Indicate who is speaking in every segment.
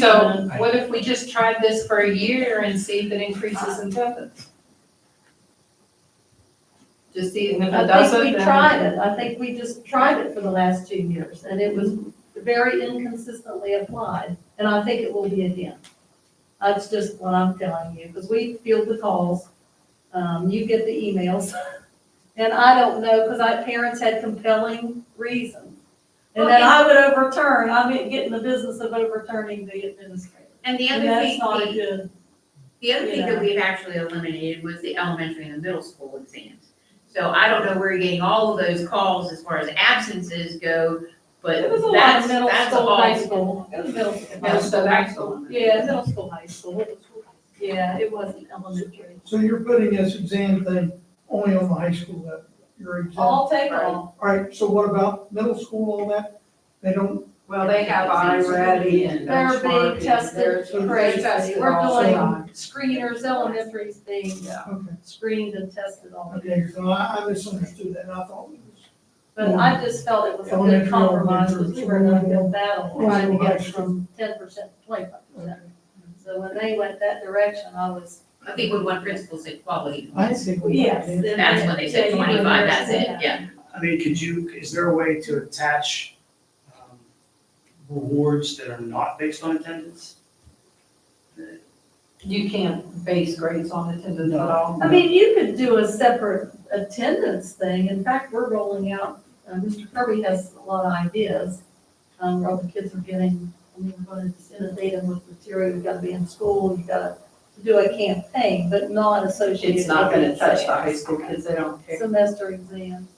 Speaker 1: So what if we just tried this for a year and see if it increases in attendance? Just see, and if it
Speaker 2: I
Speaker 1: doesn't,
Speaker 2: think we
Speaker 1: then-
Speaker 2: tried it, I think we just tried it for the last two years, and it was very inconsistently applied, and I think it will be again. That's just what I'm telling you, because we field the calls, um, you get the emails, and I don't know, because I, parents had compelling reasons. And then I would overturn, I'm in- get in the business of overturning the administrator,
Speaker 3: And the
Speaker 2: and
Speaker 3: other
Speaker 2: that's
Speaker 3: thing,
Speaker 2: not a
Speaker 3: the,
Speaker 2: good.
Speaker 3: the other thing
Speaker 2: yeah.
Speaker 3: that we've actually eliminated was the elementary and the middle school exams. So I don't know where you're getting all of those calls as far as absences go, but
Speaker 2: It was a lot
Speaker 3: that's,
Speaker 2: of middle
Speaker 3: that's
Speaker 2: school,
Speaker 3: all.
Speaker 2: high school, it was middle school.
Speaker 1: Yeah, so that's the one.
Speaker 2: Yeah, middle school, high school. Yeah, it wasn't elementary.
Speaker 4: So you're putting this exam thing only on the high school level, your exam? All
Speaker 2: All take all.
Speaker 4: right, so what about middle school, all that? They don't,
Speaker 1: Well, they have iReady and
Speaker 2: They're
Speaker 1: benchmark
Speaker 2: being tested
Speaker 4: they're
Speaker 2: crazy.
Speaker 1: tested
Speaker 2: We're
Speaker 1: all the
Speaker 2: doing
Speaker 1: time.
Speaker 2: screeners, elementary's being
Speaker 4: okay,
Speaker 2: screened and tested all the
Speaker 4: okay, so I, I misunderstood that, and I thought it was.
Speaker 2: But I just felt it was a good
Speaker 4: Elementary,
Speaker 2: compromise,
Speaker 4: elementary,
Speaker 2: because we were in a
Speaker 4: school.
Speaker 2: good battle, trying to get from ten percent to twenty-five percent. So when they went that direction, I was.
Speaker 3: I think when one principal said quality,
Speaker 4: I think we.
Speaker 2: and
Speaker 3: that's when they said
Speaker 2: then-
Speaker 3: twenty-five, that's it, yeah.
Speaker 5: I mean, could you, is there a way to attach um, rewards that are not based on attendance?
Speaker 1: You can't base grades on attendance at
Speaker 5: No.
Speaker 1: all.
Speaker 2: I mean, you could do a separate attendance thing. In fact, we're rolling out, uh, Mr. Kirby has a lot of ideas. Um, where all the kids are getting, I mean, we're gonna just inundate them with material, you gotta be in school, you gotta do a campaign, but not associated.
Speaker 1: It's not gonna
Speaker 2: with
Speaker 1: touch the
Speaker 2: exams.
Speaker 1: high school kids, they don't care.
Speaker 2: Semester exams.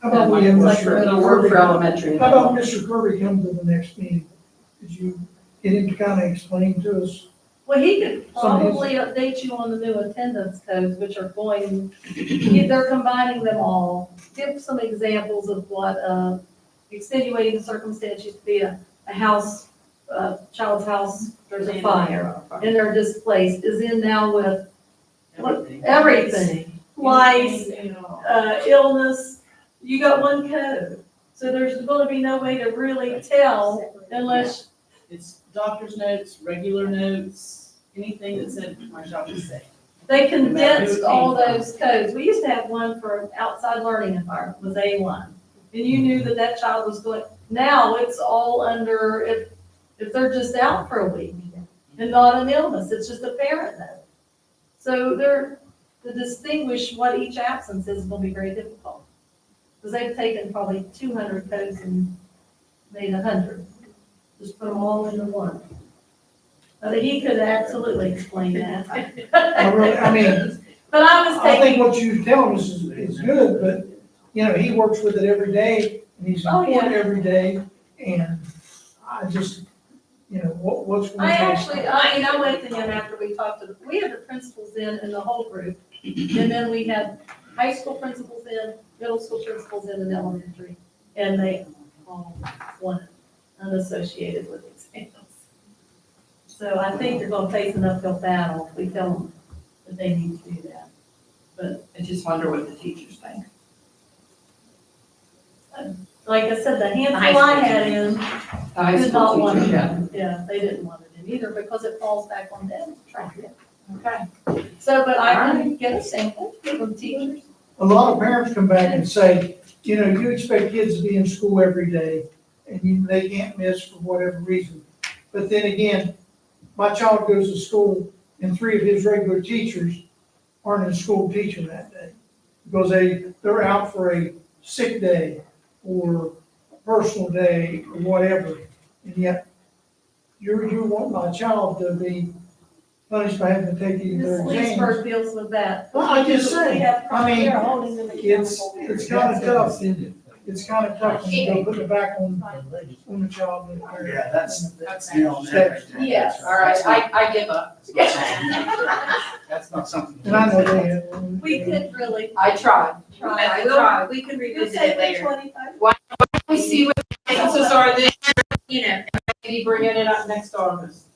Speaker 4: How about we have
Speaker 1: Like,
Speaker 4: Mr.
Speaker 1: It'll work for
Speaker 4: Kirby?
Speaker 1: elementary.
Speaker 4: How about Mr. Kirby come to the next meeting? Could you get him to kind of explain to us?
Speaker 2: Well, he could
Speaker 4: Some of these-
Speaker 2: probably update you on the new attendance codes, which are going, they're combining them all. Give some examples of what, uh, extenuating circumstance used to be a, a house, uh, child's house, there's a fire, and they're displaced, is in now with
Speaker 5: Everything.
Speaker 2: everything. Lice, uh, illness, you got one code. So there's gonna be no way to really tell unless,
Speaker 6: It's doctor's notes, regular notes, anything that said my job is safe.
Speaker 2: They condensed all those codes. We used to have one for outside learning environment was A one. And you knew that that child was going, now it's all under, if, if they're just out for a week and not an illness, it's just a parent note. So they're, to distinguish what each absence is will be very difficult. Because they've taken probably two hundred codes and made a hundred. Just put them all into one. But he could absolutely explain that.
Speaker 4: I really, I mean,
Speaker 2: But I was
Speaker 4: I think
Speaker 2: taking,
Speaker 4: what you're telling us is, is good, but you know, he works with it every day, and he's
Speaker 2: Oh,
Speaker 4: on
Speaker 2: yeah.
Speaker 4: it every day, and I just, you know, what, what's. going
Speaker 2: I
Speaker 4: on?
Speaker 2: actually, I mean, I went to him after we talked to, the we had the principals in and the whole group. And then we had high school principals in, middle school principals in and elementary. And they all wanted unassociated with exams. So I think they're gonna face an uphill battle if we tell them that they need to do that.
Speaker 1: I just wonder what the teachers think.
Speaker 2: Like I said, the
Speaker 3: High
Speaker 2: handful
Speaker 3: school
Speaker 2: I had in,
Speaker 1: The high
Speaker 2: did not
Speaker 1: school
Speaker 2: want
Speaker 1: teachers, yeah.
Speaker 2: it. Yeah, they didn't want it in either because it falls back on them.
Speaker 1: Okay.
Speaker 2: So, but I can get a sample from teachers.
Speaker 4: A lot of parents come back and say, you know, you expect kids to be in school every day, and you, they can't miss for whatever reason. But then again, my child goes to school, and three of his regular teachers aren't in school teaching that day. Because they, they're out for a sick day, or a personal day, or whatever. And yet, you, you want my child to be punished by having to take these
Speaker 2: Ms.
Speaker 4: exams.
Speaker 2: Leesburg deals with that.
Speaker 4: Well, I just
Speaker 2: We
Speaker 4: said,
Speaker 2: have
Speaker 4: I mean,
Speaker 2: they're holding them
Speaker 4: it's,
Speaker 2: accountable.
Speaker 4: it's kind of tough, it's kind of tough when you go put it back on, on the child. and the parent.
Speaker 5: Yeah, that's, that's the element right there.
Speaker 1: Yes, all right, I, I give up.
Speaker 5: That's not something.
Speaker 4: And I know they have.
Speaker 2: We could really
Speaker 1: I tried.
Speaker 2: try.
Speaker 1: I tried.
Speaker 3: We can
Speaker 2: You
Speaker 3: revisit
Speaker 2: take
Speaker 3: it
Speaker 2: the
Speaker 3: later,
Speaker 2: 25.
Speaker 1: We see what the answers are then,
Speaker 3: you know,
Speaker 1: maybe bringing it up next August.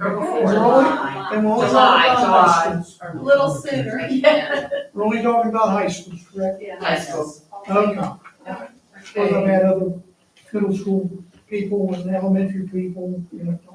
Speaker 1: Or
Speaker 4: We're
Speaker 1: before.
Speaker 4: only- and we're only
Speaker 3: July,
Speaker 4: talking about high schools.
Speaker 2: A little sooner.
Speaker 3: Yeah.
Speaker 4: We're only talking about high schools, correct?
Speaker 1: High
Speaker 2: Yeah.
Speaker 1: school.
Speaker 4: Okay, because I've had other middle school people and elementary people, you know,